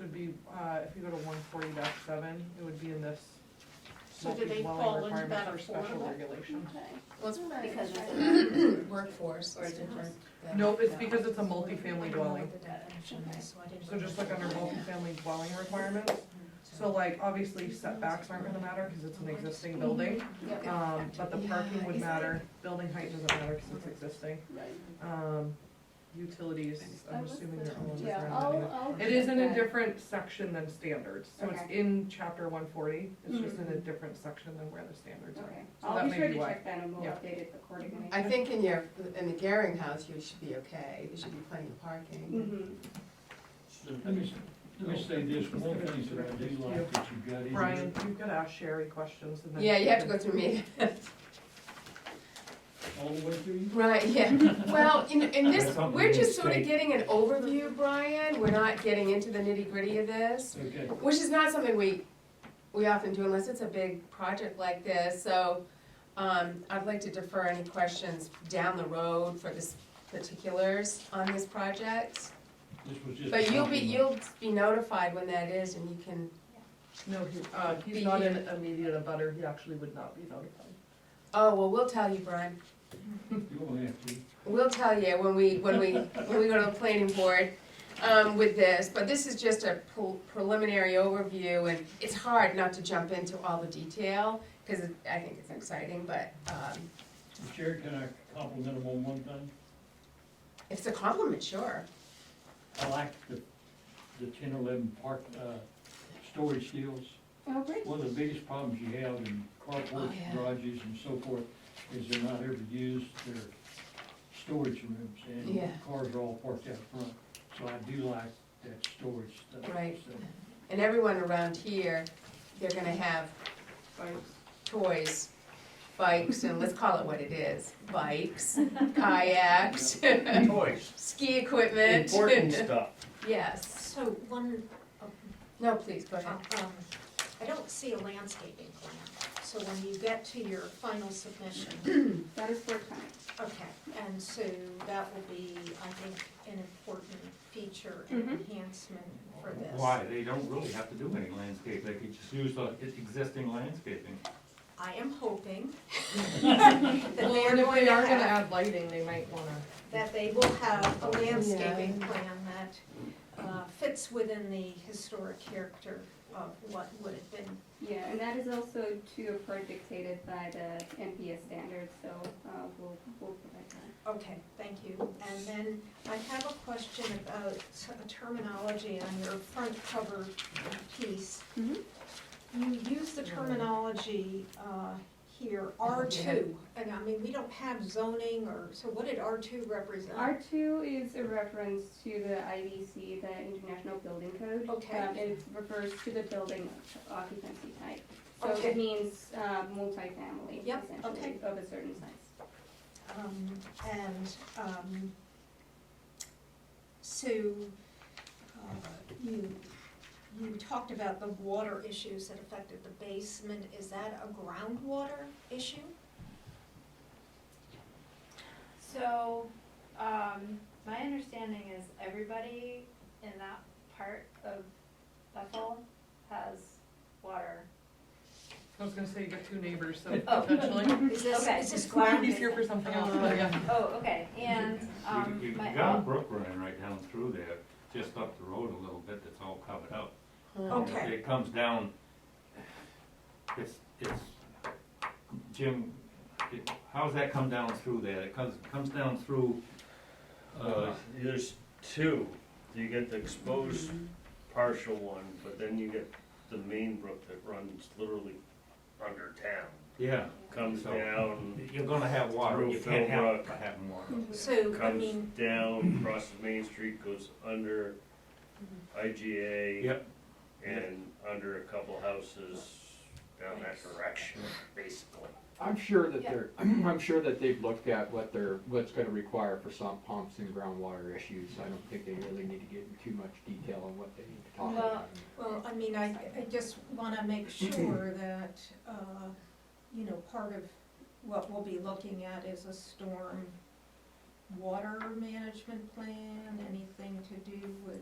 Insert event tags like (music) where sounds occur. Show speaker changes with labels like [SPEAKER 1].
[SPEAKER 1] would be, uh, if you go to one forty seven, it would be in this
[SPEAKER 2] So do they fall
[SPEAKER 1] multi-dwelling
[SPEAKER 2] into
[SPEAKER 1] requirements
[SPEAKER 2] that
[SPEAKER 1] or special
[SPEAKER 2] affordable?
[SPEAKER 1] regulation.
[SPEAKER 3] Well, it's
[SPEAKER 4] Because
[SPEAKER 1] (coughs)
[SPEAKER 3] it's workforce.
[SPEAKER 4] Or is it just-
[SPEAKER 1] Nope, it's because it's a multifamily dwelling, so
[SPEAKER 5] So
[SPEAKER 1] just look under multifamily dwelling requirements. So like, obviously setbacks aren't gonna matter, cause it's an existing
[SPEAKER 2] Mm-hmm.
[SPEAKER 1] building,
[SPEAKER 4] Yep,
[SPEAKER 1] um, but the parking would
[SPEAKER 3] Yeah,
[SPEAKER 1] matter, building height doesn't matter, cause it's existing.
[SPEAKER 4] right.
[SPEAKER 1] Um, utilities, I'm assuming they're all
[SPEAKER 4] Yeah,
[SPEAKER 1] different.
[SPEAKER 4] I'll, I'll.
[SPEAKER 1] It is in a
[SPEAKER 4] check that.
[SPEAKER 1] different section than standards, so it's
[SPEAKER 4] Okay.
[SPEAKER 1] in chapter one forty, it's just
[SPEAKER 3] Mm-hmm.
[SPEAKER 1] in a
[SPEAKER 4] Mhm.
[SPEAKER 1] different section than where the standards are.
[SPEAKER 4] Okay,
[SPEAKER 1] So that
[SPEAKER 4] I'll be
[SPEAKER 1] may
[SPEAKER 4] sure
[SPEAKER 1] be
[SPEAKER 4] to
[SPEAKER 1] why.
[SPEAKER 4] check that and we'll
[SPEAKER 1] Yeah.
[SPEAKER 4] update it accordingly.
[SPEAKER 3] I think in your, in the Garing house, you should be okay, there should be plenty of parking.
[SPEAKER 4] Mhm.
[SPEAKER 6] Let me, let me say this, one thing that I do like that you got in
[SPEAKER 1] Brian,
[SPEAKER 6] here,
[SPEAKER 1] you've got to ask Sherry questions
[SPEAKER 4] Mm-hmm.
[SPEAKER 1] and then.
[SPEAKER 3] Yeah, you have to go through me. (laughs)
[SPEAKER 6] all the way
[SPEAKER 3] (laughs)
[SPEAKER 6] through you,
[SPEAKER 3] Right, yeah, well, in, in this,
[SPEAKER 6] That's something
[SPEAKER 3] we're just
[SPEAKER 6] we
[SPEAKER 3] sort of
[SPEAKER 6] need to
[SPEAKER 3] getting an overview, Brian, we're not getting into the nitty gritty of this,
[SPEAKER 6] okay.
[SPEAKER 3] which is not something we, we often do unless it's a big project like this, so, um, I'd like to defer any questions down the road for this particulars on this project.
[SPEAKER 6] This was just.
[SPEAKER 3] But
[SPEAKER 6] a
[SPEAKER 3] you'll be,
[SPEAKER 6] compliment.
[SPEAKER 3] you'll be notified when that is and you can
[SPEAKER 1] No, he, uh, he's
[SPEAKER 3] Be
[SPEAKER 1] not
[SPEAKER 3] here.
[SPEAKER 1] an immediate abutter, he actually would not be notified.
[SPEAKER 3] Oh, well, we'll tell you, Brian.
[SPEAKER 6] You won't have to.
[SPEAKER 3] We'll tell you when we, when we, when we go to the planning board, um, with this, but this is just a pre- preliminary overview, and it's hard not to jump into all the detail, cause it- I think it's exciting, but, um,
[SPEAKER 6] Jared, can I compliment him on one thing?
[SPEAKER 3] if it's a compliment, sure.
[SPEAKER 6] I like the, the ten, eleven park, uh, storage deals.
[SPEAKER 4] Oh, great.
[SPEAKER 6] One of the biggest problems you have in
[SPEAKER 3] Oh,
[SPEAKER 6] carports,
[SPEAKER 3] yeah.
[SPEAKER 6] garages and so forth, is they're not ever used, they're storage rooms, and
[SPEAKER 3] Yeah.
[SPEAKER 6] cars are all parked out front. So I do like that storage stuff.
[SPEAKER 3] Right.
[SPEAKER 6] so.
[SPEAKER 3] And everyone around here, they're gonna have
[SPEAKER 1] Thanks.
[SPEAKER 3] toys, bikes, and let's call it what it is, bikes, kayaks, (laughs)
[SPEAKER 7] Toys,
[SPEAKER 3] ski equipment.
[SPEAKER 8] (laughs)
[SPEAKER 7] important stuff.
[SPEAKER 3] (laughs) Yes.
[SPEAKER 5] So one, uh,
[SPEAKER 3] No, please, go ahead.
[SPEAKER 5] um, I don't see a landscaping plan, so when you get to your final submission,
[SPEAKER 4] That is for tonight.
[SPEAKER 5] okay, and so that will be, I think, an important feature and
[SPEAKER 1] Mm-hmm.
[SPEAKER 5] enhancement for this.
[SPEAKER 9] Why, they don't really have to do any landscape, they could just use the existing landscaping.
[SPEAKER 5] I
[SPEAKER 1] (laughs)
[SPEAKER 5] am hoping (laughs) that
[SPEAKER 1] Well,
[SPEAKER 5] they are
[SPEAKER 1] and if
[SPEAKER 5] going
[SPEAKER 1] they
[SPEAKER 5] to
[SPEAKER 1] are gonna
[SPEAKER 5] have,
[SPEAKER 1] add lighting, they might wanna.
[SPEAKER 5] that they will have a landscaping
[SPEAKER 3] Yeah.
[SPEAKER 5] plan that uh, fits within the historic character of what would have been
[SPEAKER 4] Yeah, and that is also to a part dictated by the NPS standards, so uh, we'll, we'll provide that.
[SPEAKER 5] Okay, thank you. And then I have a question about s- terminology on your front cover piece.
[SPEAKER 4] Mhm.
[SPEAKER 5] You use the terminology uh, here, R2, and I mean, we don't have zoning or, so what did R2 represent?
[SPEAKER 4] R2 is a reference to the IBC, the International Building Code.
[SPEAKER 5] Okay.
[SPEAKER 4] Um, It refers to the building occupancy type. So
[SPEAKER 5] Okay.
[SPEAKER 4] it means uh, multifamily,
[SPEAKER 5] Yep,
[SPEAKER 4] essentially, of a certain size.
[SPEAKER 5] Um, And um, so uh, you, you talked about the water issues that affected the basement. Is that a groundwater issue?
[SPEAKER 8] So, um, my understanding is everybody in that part of Bethel has water.
[SPEAKER 1] I was gonna say you got two neighbors,
[SPEAKER 3] (laughs)
[SPEAKER 1] so
[SPEAKER 8] Oh.
[SPEAKER 1] potentially.
[SPEAKER 5] Is this,
[SPEAKER 8] Okay.
[SPEAKER 5] is this
[SPEAKER 1] Might
[SPEAKER 5] ground?
[SPEAKER 1] be here for something else, but yeah.
[SPEAKER 8] Oh, okay, and, um,
[SPEAKER 9] You- You've
[SPEAKER 8] my,
[SPEAKER 9] got a brook running right down through there, just up the road a little bit, that's all covered up. And if
[SPEAKER 5] Okay.
[SPEAKER 9] It comes down, it's, it's, Jim, it- how's that come down through there? It comes, comes down through,
[SPEAKER 7] Uh,
[SPEAKER 9] uh,
[SPEAKER 7] There's two, you get the exposed
[SPEAKER 5] Mm-hmm.
[SPEAKER 7] partial one, but then you get the main brook that runs literally under town.
[SPEAKER 9] yeah,
[SPEAKER 7] Comes
[SPEAKER 9] So-
[SPEAKER 7] down,
[SPEAKER 9] you're gonna have water,
[SPEAKER 7] Through
[SPEAKER 9] you can't have,
[SPEAKER 7] Philbrook.
[SPEAKER 9] having water.
[SPEAKER 5] So, I
[SPEAKER 7] comes
[SPEAKER 5] mean,
[SPEAKER 7] down, crosses Main Street, goes under
[SPEAKER 5] Mm-hmm.
[SPEAKER 7] IGA.
[SPEAKER 9] Yep.
[SPEAKER 7] And under a couple houses down that direction, basically.
[SPEAKER 10] I'm sure that
[SPEAKER 8] Yeah.
[SPEAKER 10] they're, (clears throat) I'm sure that they've looked at what they're, what's gonna require for some pumps and groundwater issues. I don't think they really need to get into too much detail on what they need to talk
[SPEAKER 8] Well,
[SPEAKER 10] about.
[SPEAKER 5] well, I mean, I, I just wanna make sure that, uh, you know, part of what we'll be looking at is a storm water management plan, anything to do with